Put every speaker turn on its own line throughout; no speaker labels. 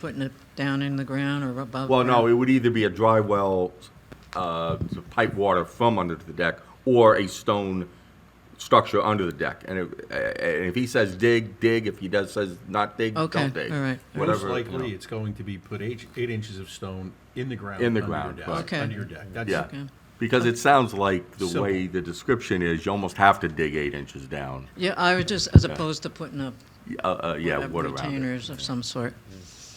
Putting it down in the ground or above?
Well, no,
ground?
it would either be a dry well, uh, to pipe water from under the deck, or a stone structure under the deck. And if, and if he says dig, dig, if he does, says not dig,
Okay,
don't dig.
all right.
Whatever, you
Most likely,
know.
it's going to be put eight, eight inches of stone in the ground.
In the
under your
ground,
deck-
right.
Okay.
Under your deck. That's-
Yeah,
Okay.
because it sounds like the
Simple.
way the description is, you almost have to dig eight inches down,
Yeah, I was just, as opposed to putting up
uh, uh, yeah,
uh,
water around it.
retainers of some sort.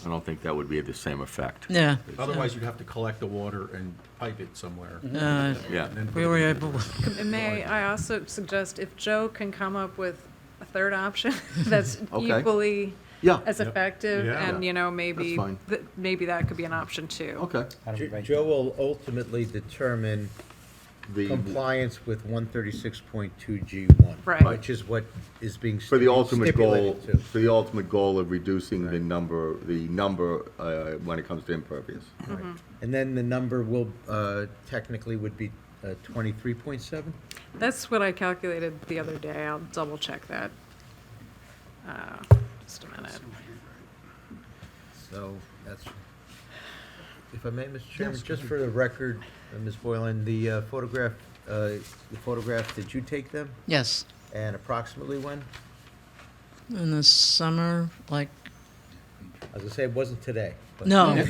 I don't think that would be the same effect.
Yeah.
Otherwise, you'd have to collect the water and pipe it somewhere.
Uh,
Yeah.
And then put
We
it
were
in.
able,
And may I also suggest, if Joe can come up with a third option that's
Okay.
equally
Yeah,
as
Yep.
effective,
Yeah.
and, you know,
That's
maybe,
fine.
th- maybe that could be an option too.
okay.
Jo-
right
Joe will ultimately determine
The,
compliance with one thirty-six point two G one.
Right.
Which is what is being
for the
stipu-
ultimate goal,
stipulated to.
for the ultimate goal of reducing the number, the number, uh, when it comes to impervious.
Mm-hmm.
And then the number will, uh, technically would be uh, twenty-three point seven?
That's what I calculated the other day. I'll double check that. Uh, Just a minute.
So that's, if I may, Mr. Chairman, just for the record, uh, Ms. Boylan, the uh, photograph, uh, the photograph, did you take them?
yes,
And approximately when?
in the summer, like,
I was gonna say, it wasn't today. but-
no, no,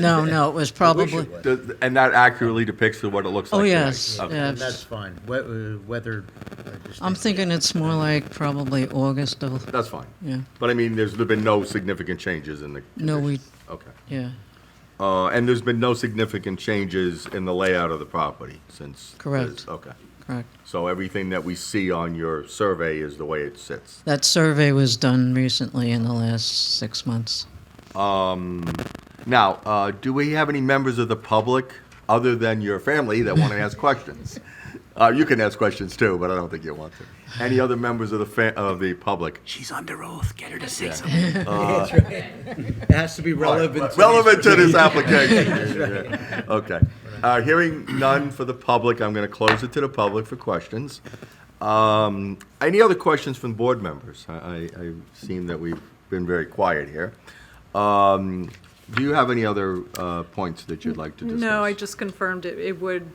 no, no, it was
I wish it
probably,
was.
Does- And that accurately depicts what it looks like.
Oh,
today.
yes,
Okay.
yeah.
And that's fine, We- uh, whether. I just
I'm
think-
thinking it's more like probably August of,
That's fine.
yeah,
But I mean, there's been no significant changes in the.
No, we-
conditions. Okay.
yeah,
Uh, and there's been no significant changes in the layout of the property since.
Correct.
this- Okay.
correct.
So everything that we see on your survey is the way it sits.
That survey was done recently in the last six months.
Now, uh, do we have any members of the public, other than your family, that want to ask questions? Uh, you can ask questions too, but I don't think you want to. Any other members of the fa- of the public?
She's under oath. Get her to say something.
It has to be relevant. to-
Relevant to this application. Okay. Uh, Hearing none for the public, I'm going to close it to the public for questions. Um, Any other questions from board members? I- I, I've seen that we've been very quiet here. Um, Do you have any other uh, points that you'd like to discuss?
No, I just confirmed it, it would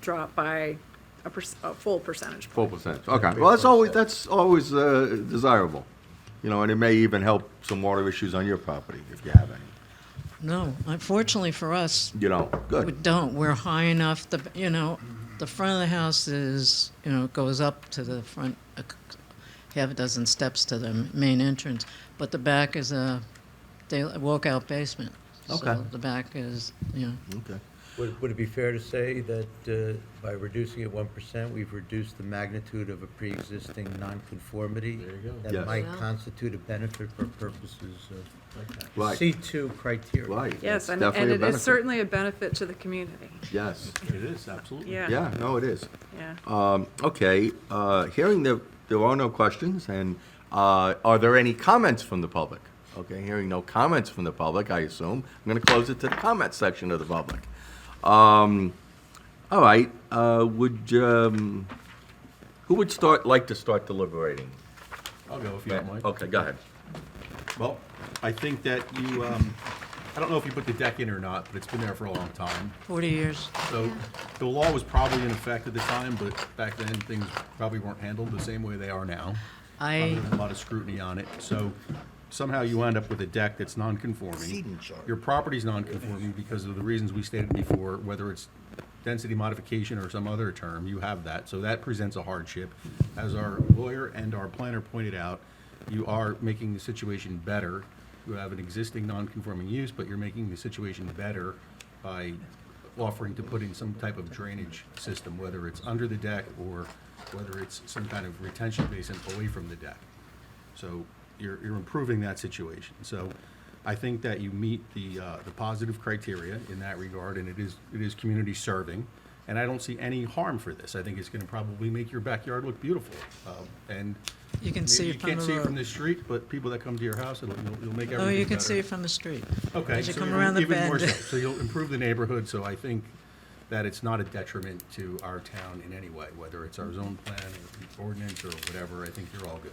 drop by a perc- a full percentage point.
Four percent, okay. Well, that's always, that's always uh, desirable, you know, and it may even help some water issues on your property if you have any.
No, unfortunately for us,
You know,
We
good.
don't, we're high enough, the, you know, the front of the house is, you know, goes up to the front, a c- half a dozen steps to the main entrance, but the back is a day- a walkout basement.
Okay.
So the back is, you know,
Okay.
Would, would it be fair to say that uh, by reducing it one percent, we've reduced the magnitude of a pre-existing nonconformity? There you go.
Yes.
That might
Well-
constitute a benefit for purposes of
Right.
C two criteria.
Right. that's
Yes, and and
definitely a
it is
benefit.
certainly a benefit to the community.
Yes,
It is, absolutely.
Yeah.
yeah, no, it is.
Yeah.
Um, Okay, uh, hearing that there are no questions, and uh, are there any comments from the public? Okay, hearing no comments from the public, I assume, I'm going to close it to the comment section of the public. Um, All right, uh, would, um, who would start, like to start deliberating?
I'll go if you don't mind.
Okay, go ahead.
Well, I think that you, um, I don't know if you put the deck in or not, but it's been there for a long time.
forty years.
So the law was probably in effect at the time, but back then, things probably weren't handled the same way they are now.
I,
a lot of scrutiny on it, so somehow you end up with a deck that's non-conforming. Your property's non-conforming because of the reasons we stated before, whether it's density modification or some other term, you have that, so that presents a hardship. As our lawyer and our planner pointed out, you are making the situation better. You have an existing non-conforming use, but you're making the situation better by offering to put in some type of drainage system, whether it's under the deck or whether it's some kind of retention basin away from the deck. So you're, you're improving that situation. So I think that you meet the, uh, the positive criteria in that regard, and it is, it is community serving. And I don't see any harm for this. I think it's gonna probably make your backyard look beautiful. Um, And
you can see
you
it from
can't
the
see it from the
road.
street, but people that come to your house, it'll, you'll- you'll make everything
Oh,
better.
you can see it from the street.
Okay.
As you
so
come
even-
around the
Even more so.
bend.
So you'll improve the neighborhood, so I think that it's not a detriment to our town in any way, whether it's our zone plan or ordinance or whatever, I think you're all good.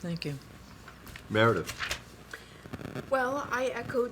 Thank you.
Meredith?
Well, I echoed